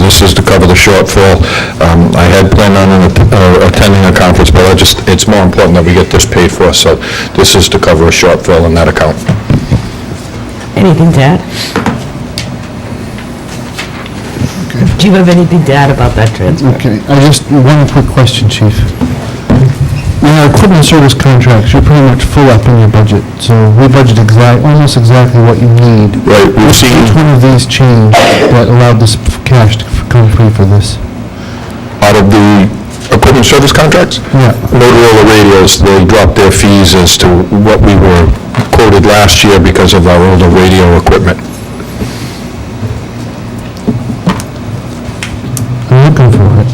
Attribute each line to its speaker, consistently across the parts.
Speaker 1: this is to cover the shortfall. Um, I had planned on an- uh, attending a conference, but I just, it's more important that we get this paid for, so this is to cover a shortfall in that account.
Speaker 2: Anything to add? Do you have anything to add about that transfer?
Speaker 3: Okay, I just, one quick question, Chief. Your equipment service contracts, you're pretty much full up in your budget, so we budget exact, almost exactly what you need.
Speaker 1: Right, we've seen,
Speaker 3: Which one of these changed that allowed this cash to come free for this?
Speaker 1: out of the equipment service contracts,
Speaker 3: Yeah.
Speaker 1: Motorola radios, they dropped their fees as to what we were quoted last year because of our older radio equipment.
Speaker 3: I'm looking for it.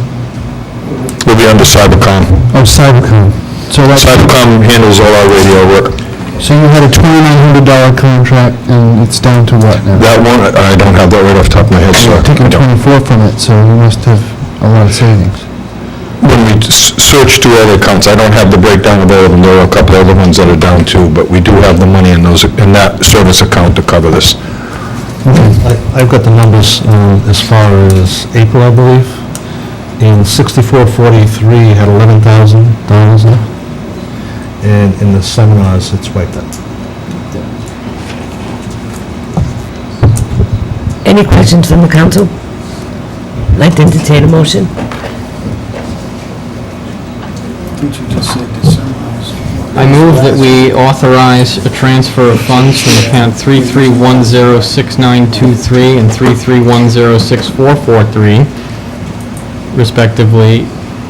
Speaker 1: We'll be under Cybercom.
Speaker 3: Oh, Cybercom. So that's,
Speaker 1: Cybercom handles all our radio work.
Speaker 3: so you had a twenty-nine hundred dollar contract and it's down to what now?
Speaker 1: That one, I don't have that right off the top of my head, so.
Speaker 3: You're taking twenty-four from it, so you must have a lot of savings.
Speaker 1: When we s- search through all the accounts, I don't have the breakdown of all of them, there are a couple other ones that are down too, but we do have the money in those, in that service account to cover this.
Speaker 4: I- I've got the numbers um, as far as April, I believe, and 6443 had $11,000 in it, and in the seminars, it's wiped out.
Speaker 2: Any questions from the council? Like to entertain a motion?
Speaker 5: I move that we authorize a transfer of funds from account 33106923 and 33106443, respectively,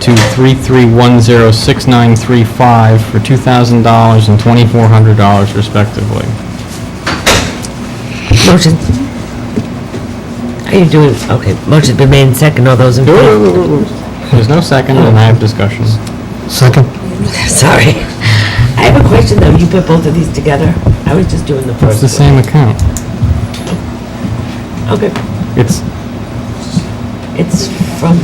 Speaker 5: to 33106935 for $2,000 and $2,400 respectively.
Speaker 2: Motion. How you doing? Okay, motion's been made and second, all those in favor?
Speaker 5: There's no second, and I have discussion.
Speaker 3: Second?
Speaker 2: Sorry. I have a question though, you put both of these together? I was just doing the
Speaker 5: It's the
Speaker 2: first.
Speaker 5: same account.
Speaker 2: Okay,
Speaker 5: It's,
Speaker 2: it's from,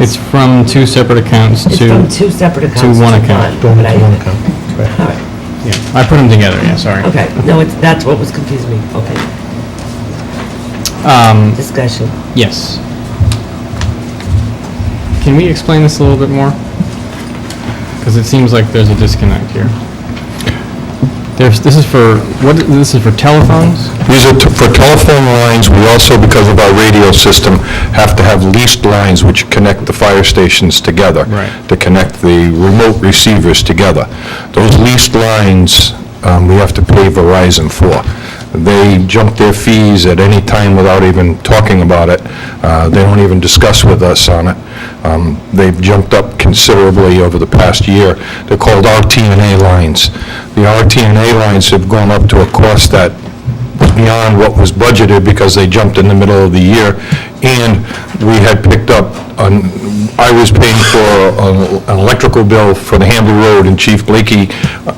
Speaker 5: it's from two separate accounts
Speaker 2: it's
Speaker 5: to,
Speaker 2: from two separate accounts.
Speaker 5: one account.
Speaker 2: but I-
Speaker 4: One account.
Speaker 2: All right.
Speaker 5: yeah, I put them together, yeah, sorry.
Speaker 2: Okay, no, it's, that's what was confusing me. Okay,
Speaker 5: Um,
Speaker 2: discussion.
Speaker 5: Yes. Can we explain this a little bit more? Because it seems like there's a disconnect here. There's, this is for, what, this is for telephones?
Speaker 1: These are t- for telephone lines, we also, because of our radio system, have to have leased lines which connect the fire stations together.
Speaker 5: Right.
Speaker 1: To connect the remote receivers together. Those leased lines, um, we have to pay Verizon for. They jump their fees at any time without even talking about it. Uh, They don't even discuss with us on it. Um, They've jumped up considerably over the past year. They're called RTNA lines. The RTNA lines have gone up to a cost that beyond what was budgeted because they jumped in the middle of the year, and we had picked up, on- I was paying for a- an electrical bill for the Hamble Road, and Chief Blakey,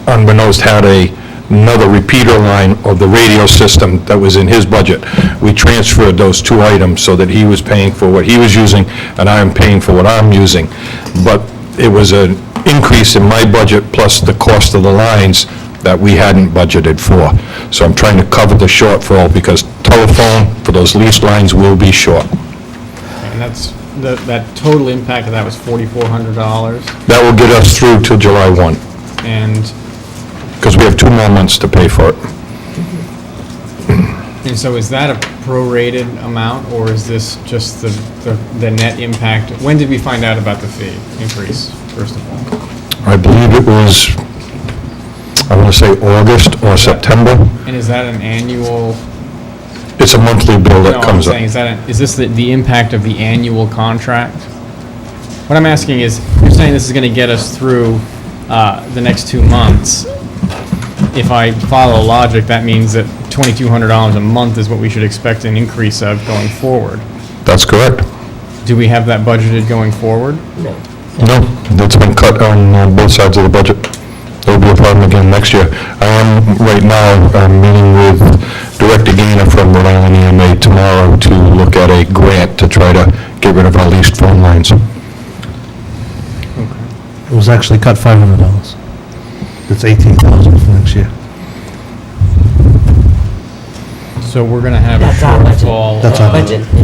Speaker 1: unbeknownst, had a, another repeater line of the radio system that was in his budget. We transferred those two items so that he was paying for what he was using, and I am paying for what I'm using. But it was an increase in my budget plus the cost of the lines that we hadn't budgeted for. So I'm trying to cover the shortfall because telephone for those lease lines will be short.
Speaker 5: And that's, that, that total impact of that was forty-four hundred dollars,
Speaker 1: That will get us through till July 1,
Speaker 5: and,
Speaker 1: because we have two more months to pay for it.
Speaker 5: and so is that a prorated amount, or is this just the, the, the net impact? When did we find out about the fee increase, first of all?
Speaker 1: I believe it was, I want to say August or September.
Speaker 5: And is that an annual?
Speaker 1: It's a monthly bill
Speaker 5: No,
Speaker 1: that
Speaker 5: I'm
Speaker 1: comes up.
Speaker 5: saying, Is that, is this the, the impact of the annual contract? What I'm asking is, you're saying this is gonna get us through, uh, the next two months. If I follow logic, that means that twenty-two hundred dollars a month is what we should expect an increase of going forward.
Speaker 1: That's correct.
Speaker 5: Do we have that budgeted going forward?
Speaker 2: No.
Speaker 1: No, that's been cut on uh, both sides of the budget. It'll be a problem again next year. I am, right now, I'm meeting with Director Gainer from Rhode Island EMA tomorrow to look at a grant to try to get rid of our leased phone lines.
Speaker 4: It was actually cut $500. It's $18,000 for next year.
Speaker 5: So we're gonna have a
Speaker 2: That's our budget.
Speaker 5: shortfall.
Speaker 4: That's
Speaker 5: of-
Speaker 4: our
Speaker 2: Budget.